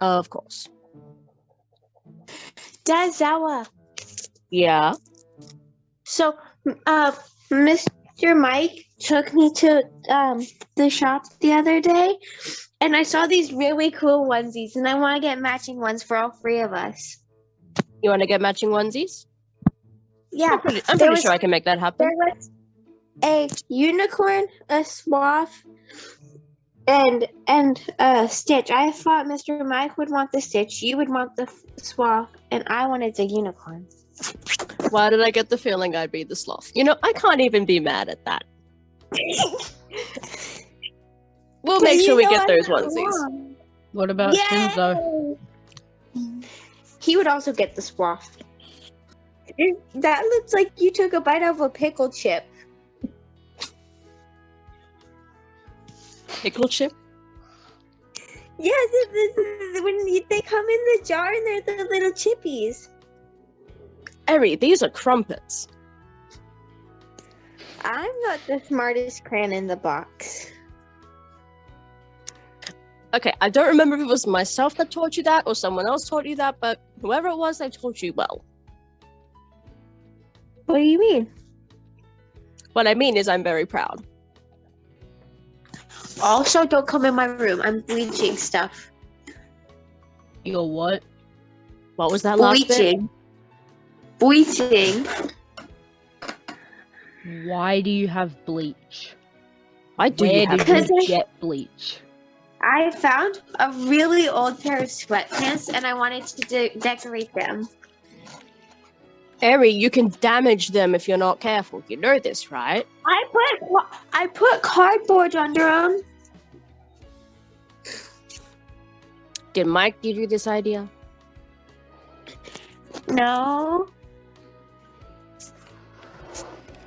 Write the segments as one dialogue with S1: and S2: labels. S1: Of course.
S2: Dazawa.
S1: Yeah.
S2: So, uh, Mr. Mike took me to um, the shop the other day, and I saw these really cool onesies, and I want to get matching ones for all three of us.
S1: You want to get matching onesies?
S2: Yeah,
S1: I'm pretty, I'm
S2: There
S1: pretty
S2: was-
S1: sure I can make that happen.
S2: there was a unicorn, a sloth, and and a stitch. I thought Mr. Mike would want the stitch, you would want the f- sloth, and I wanted the unicorn.
S1: Why did I get the feeling I'd be the sloth? You know, I can't even be mad at that. We'll make
S2: You
S1: sure we
S2: know
S1: get
S2: I'm
S1: those
S2: not
S1: onesies.
S2: wrong.
S3: What about Kenzo?
S2: Yay! He would also get the swath. That looks like you took a bite of a pickle chip.
S1: Pickle chip?
S2: Yes, it- this is- when you- they come in the jar and they're the little chippies.
S1: Eri, these are crumpets.
S2: I'm not the smartest crayon in the box.
S1: Okay, I don't remember if it was myself that taught you that or someone else taught you that, but whoever it was, they taught you well.
S2: What do you mean?
S1: What I mean is, I'm very proud.
S2: Also, don't come in my room. I'm bleaching stuff.
S3: You're what?
S1: What was that last bit?
S2: Bleaching. Bleaching.
S3: Why do you have bleach?
S1: Why do
S3: Where
S1: you have
S3: did
S2: bleach?
S3: you
S2: Because I-
S3: get bleach?
S2: I found a really old pair of sweatpants and I wanted to de- decorate them.
S1: Eri, you can damage them if you're not careful. You know this, right?
S2: I put ca- I put cardboard under them.
S1: Did Mike give you this idea?
S2: No,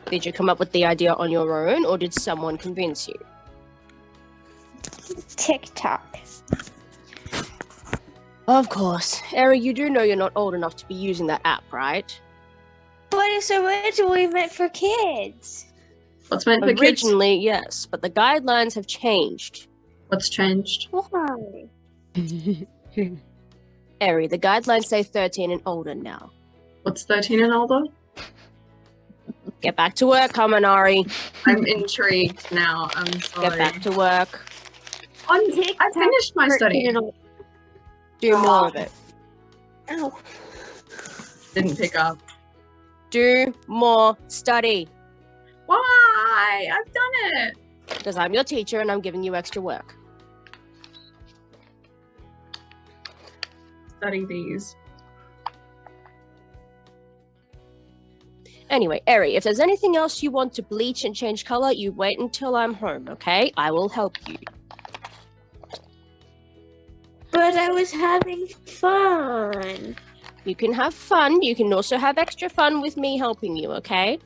S1: Did you come up with the idea on your own, or did someone convince you?
S2: TikTok.
S1: Of course. Eri, you do know you're not old enough to be using that app, right?
S2: But it's originally meant for kids.
S4: What's meant for kids?
S1: Originally, yes, but the guidelines have changed.
S4: What's changed?
S2: Why?
S1: Eri, the guidelines say 13 and older now.
S4: What's 13 and older?
S1: Get back to work, Kaminari.
S4: I'm intrigued now. I'm
S1: Get
S4: sorry.
S1: back to work.
S4: On
S2: TikTok,
S4: I finished my study.
S1: Do more of it.
S2: Oh,
S4: Didn't pick up.
S1: Do more study.
S4: Why? I've done it.
S1: Because I'm your teacher and I'm giving you extra work.
S4: Study these.
S1: Anyway, Eri, if there's anything else you want to bleach and change color, you wait until I'm home, okay? I will help you.
S2: but I was having fun.
S1: You can have fun. You can also have extra fun with me helping you, okay?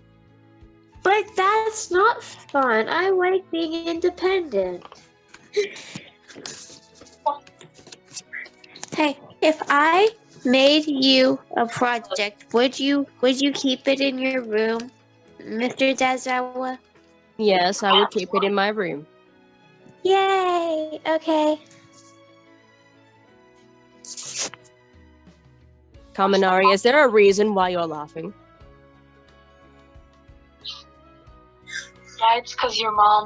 S2: But that's not fun. I like being independent. hey, if I made you a project, would you would you keep it in your room, Mr. Dazawa?
S1: Yes, I will keep it in my room.
S2: Yay! Okay.
S1: Kaminari, is there a reason why you're laughing?
S5: Yeah, it's because your mom.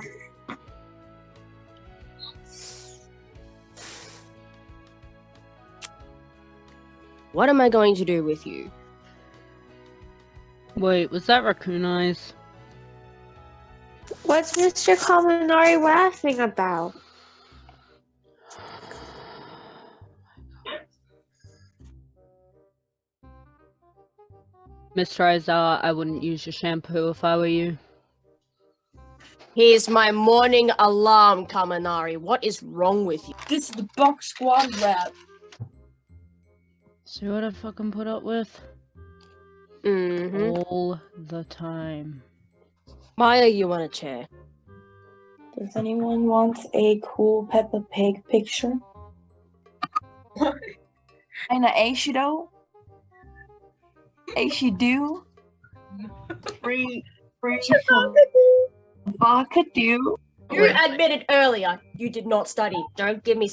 S1: What am I going to do with you?
S3: Wait, was that raccoon eyes?
S2: What's Mr. Kaminari laughing about?
S3: Mr. Aizawa, I wouldn't use your shampoo if I were you.
S1: Here's my morning alarm, Kaminari. What is wrong with you?
S5: This is the box squad rap.
S3: See what I fucking put up with?
S1: Mm-hmm.
S3: All the time.
S1: Maya, you want a chair?
S6: Does anyone want a cool Peppa Pig picture?
S5: And a Aishido. Aishido. Free. Free. Vodka do.
S1: You admitted earlier you did not study. Don't give me